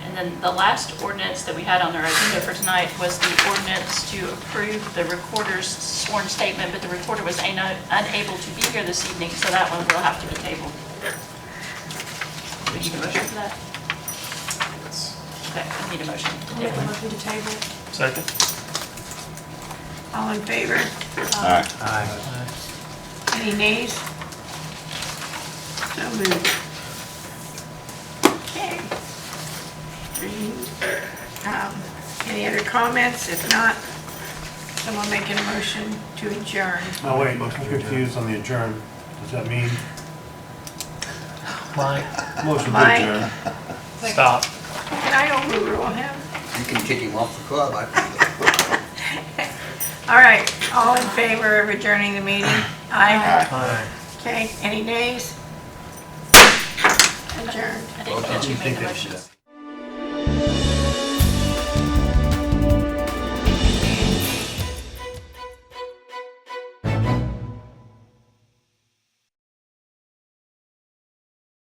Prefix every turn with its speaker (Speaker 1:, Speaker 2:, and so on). Speaker 1: then the last ordinance that we had on our agenda for tonight was the ordinance to approve the recorder's sworn statement, but the recorder was ano- unable to be here this evening, so that one will have to be tabled. Would you motion for that? Okay, I need a motion. to
Speaker 2: Make
Speaker 1: table.
Speaker 2: a motion to table.
Speaker 3: Second?
Speaker 2: All in favor?
Speaker 4: Aye.
Speaker 3: Aye.
Speaker 2: Any nays? So moved. Okay. Any, um, Any other comments? If not, someone make a motion to adjourn.
Speaker 5: No, wait, I'm confused on the adjourn. Does that mean?
Speaker 3: Mike,
Speaker 5: Motion
Speaker 2: Mike.
Speaker 5: to adjourn.
Speaker 3: stop.
Speaker 2: Can I overrule him?
Speaker 6: You can kick him off the club. I-
Speaker 2: All right, all in favor of adjourning the meeting? Aye.
Speaker 3: Aye.
Speaker 2: Okay, any nays? Adjourned.
Speaker 1: I didn't catch you made the motion.